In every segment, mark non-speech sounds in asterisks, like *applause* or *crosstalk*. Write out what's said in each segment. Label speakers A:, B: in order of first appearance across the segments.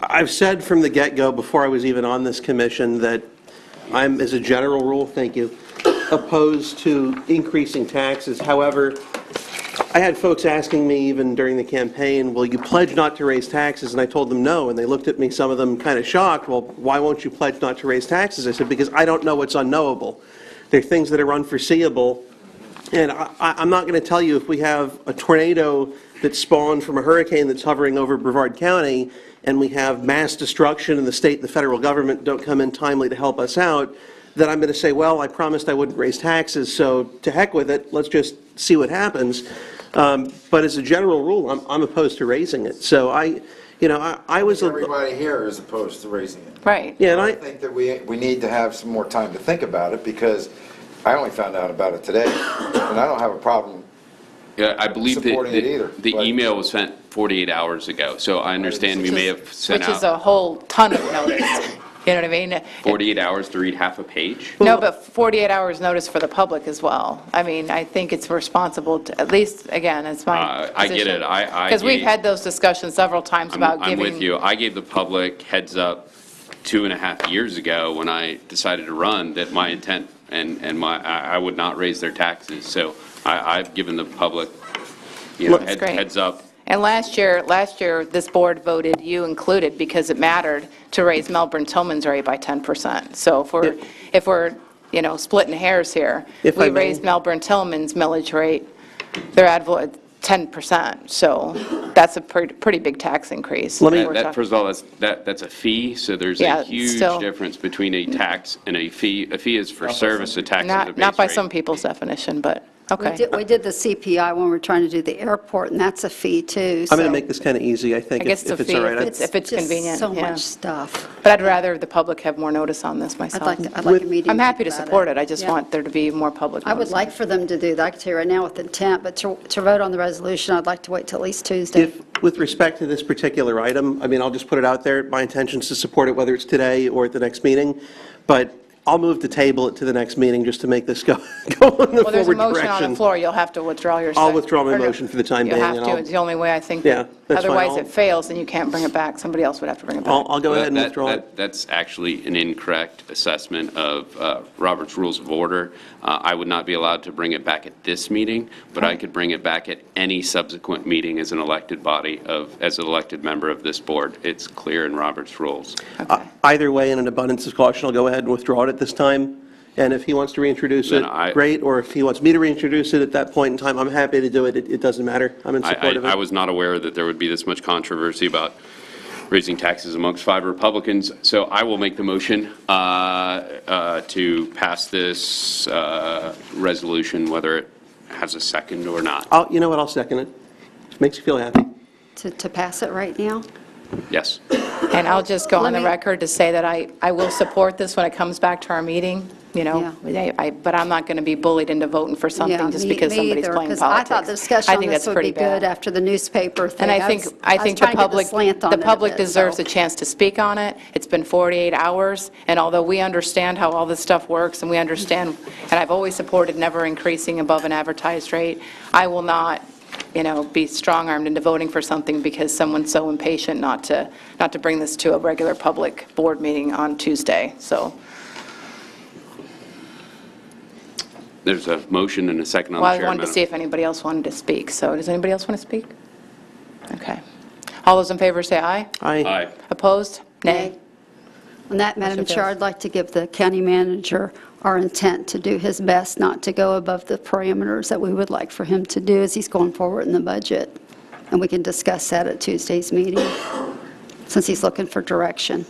A: I've said from the get-go, before I was even on this commission, that I'm, as a general rule, thank you, opposed to increasing taxes. However, I had folks asking me even during the campaign, "Will you pledge not to raise taxes?" And I told them no, and they looked at me, some of them kind of shocked, "Well, why won't you pledge not to raise taxes?" I said, "Because I don't know what's unknowable. There are things that are unforeseeable, and I, I- I'm not going to tell you if we have a tornado that spawned from a hurricane that's hovering over Brevard County, and we have mass destruction, and the state and the federal government don't come in timely to help us out, that I'm going to say, well, I promised I wouldn't raise taxes, so to heck with it, let's just see what happens. Um, But as a general rule, I'm, I'm opposed to raising it. So I, you know, I, I was, a
B: Everybody here is opposed to raising it.
C: Right.
A: yeah, and
B: I
A: I,
B: think that we, we need to have some more time to think about it, because I only found out about it today, and I don't have a problem.
D: Yeah, I believe that
B: supporting it either,
D: the- the
B: but-
D: email was sent 48 hours ago, so I understand we may have sent
C: Which is a
D: out
C: whole ton of notice,
D: *laughs*
C: you know what I mean?
D: 48 hours to read half a page.
C: No, but 48 hours notice for the public as well. I mean, I think it's responsible, to at least, again, it's my
D: Uh, I get it. I- I
C: Because we've
D: gave-
C: had those discussions several times
D: I'm
C: about
D: I'm
C: giving.
D: with you. I gave the public heads up two and a half years ago when I decided to run that my intent and, and my, I I would not raise their taxes. So I, I've given the public, you know,
C: That's
D: head-
C: great.
D: heads up.
C: And last year, last year, this board voted, you included, because it mattered, to raise Melbourne Tillman's rate by 10%. So if we're,
A: If-
C: if we're, you know, splitting hairs here,
A: If I
C: we
A: may.
C: raised Melbourne Tillman's millage rate, their advo, at 10%. So that's a pretty, pretty big tax increase.
A: Let me-
C: We're
D: That, that-
C: talk-
D: first of all, that's, that, that's a fee, so there's
C: Yeah,
D: a
C: it's
D: huge
C: still-
D: difference between a tax and a fee. A fee is for service, a tax is a
C: Not,
D: base
C: not by
D: rate.
C: some people's definition, but,
E: We
C: okay.
E: did, we did the CPI when we were trying to do the airport, and that's a fee too.
A: I'm going
E: so
A: to make this kind of easy, I think,
C: I guess
A: if
C: it's
A: if
C: a
A: it's
C: fee.
A: all right. I-
C: It's- if it's
E: just
C: convenient,
E: so
C: yeah.
E: much stuff.
C: But I'd rather the public have more notice on this
E: I'd
C: myself.
E: like, to- I'd like a meeting.
C: I'm happy to
E: about
C: support it, I just
E: Yeah.
C: want there to be more public
E: I
C: notice.
E: would like for them to do that. I can tell you right now with intent, but to, to vote on the resolution, I'd like to wait till at least Tuesday.
A: If, with respect to this particular item, I mean, I'll just put it out there, my intention is to support it, whether it's today or at the next meeting, but I'll move to table it to the next meeting just to make this go, *laughs* go in the
C: Well, there's a
A: forward
C: motion on the
A: direction.
C: floor, you'll have to withdraw your.
A: I'll
C: sec-
A: withdraw my
C: or no,
A: motion for the time
C: You
A: being,
C: have
A: and
C: to,
A: I'll-
C: it's the only way I think.
A: Yeah, that's fine.
C: Otherwise,
A: I'll-
C: it fails, and you can't bring it back, somebody else would have to bring it
A: I'll,
C: back.
A: I'll go
D: Well,
A: ahead and
D: that-
A: withdraw it.
D: that- That's actually an incorrect assessment of uh, Robert's Rules of Order. Uh, I would not be allowed to bring it back at this meeting, but I could bring it back at any subsequent meeting as an elected body of, as an elected member of this board. It's clear in Robert's Rules.
A: Uh, Either way, in an abundance of caution, I'll go ahead and withdraw it at this time, and if he wants to reintroduce it,
D: Then I-
A: great, or if he wants me to reintroduce it at that point in time, I'm happy to do it, it, it doesn't matter, I'm in
D: I-
A: support of it.
D: I, I was not aware that there would be this much controversy about raising taxes amongst five Republicans, so I will make the motion uh, uh, to pass this uh, resolution, whether it has a second or not.
A: I'll, you know what, I'll second it, makes you feel happy.
E: To, to pass it right now?
D: Yes.
C: And I'll just go on
E: Let
C: the
E: me-
C: record to say that I, I will support this when it comes back to our meeting, you know? I- I- But I'm not going to be bullied into voting for
E: Yeah,
C: something just
E: me-
C: because
E: me
C: somebody's
E: either,
C: playing
E: 'cause I
C: politics.
E: thought the discussion
C: I
E: on
C: think
E: this
C: that's
E: would
C: pretty
E: be good
C: bad.
E: after the newspaper thing.
C: And I think,
E: was-
C: I
E: was
C: think the
E: trying to get
C: public,
E: slant on
C: the
E: it a
C: public
E: bit,
C: deserves
E: so.
C: a chance to speak on it. It's been 48 hours, and although we understand how all this stuff works, and we understand, and I've always supported never increasing above an advertised rate, I will not, you know, be strong-armed into voting for something because someone's so impatient not to, not to bring this to a regular public board meeting on Tuesday, so.
D: There's a motion and a second on
C: Well,
D: the
C: I
D: chair.
C: wanted to
D: Madam.
C: see if anybody else wanted to speak, so does anybody else want to speak? Okay. All those in favor say aye.
A: I,
D: Aye.
C: Opposed? Nay.
E: Nay. On that, Madam
C: Motion
E: Chair,
C: fails.
E: I'd like to give the county manager our intent to do his best not to go above the parameters that we would like for him to do as he's going forward in the budget. And we can discuss that at Tuesday's meeting, since he's looking for direction.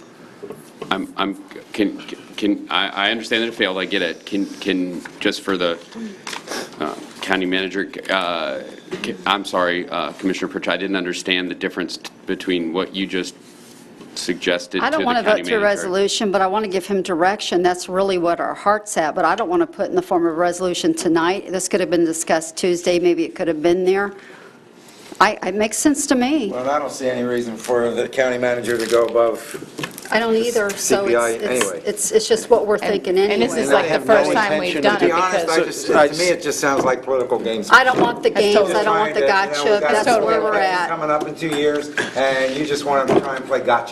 D: I'm, I'm, can, can, I, I understand that it failed, I get it. Can, can, just for the uh, county manager, uh, ca- I'm sorry, uh, Commissioner Pritchett, I didn't understand the difference t- between what you just suggested to
E: I
D: the
E: don't want
D: county
E: to vote to a
D: manager.
E: resolution, but I want to give him direction. That's really what our heart's at, but I don't want to put in the form of a resolution tonight. This could have been discussed Tuesday, maybe it could have been there. I, it makes sense to me.
B: Well, I don't see any reason for the county manager to go above.
E: I don't either,
B: CPI
E: so it's, it's-
B: anyway.
E: it's, it's just what we're thinking anyway.
C: and this is
B: And I
C: like the
B: have no
C: first time we've
B: intention-
C: done
B: To
C: it
B: be honest, I
C: because-
B: just, to me, it just sounds like political games.
E: I don't want the games,
C: totally-
E: I don't want the
B: Trying to, you know,
E: gotcha,
B: we got
E: that's
B: some
E: where
B: big
E: we're
B: things
E: at.
B: Coming up in two years, and you just want to try and play gotcha.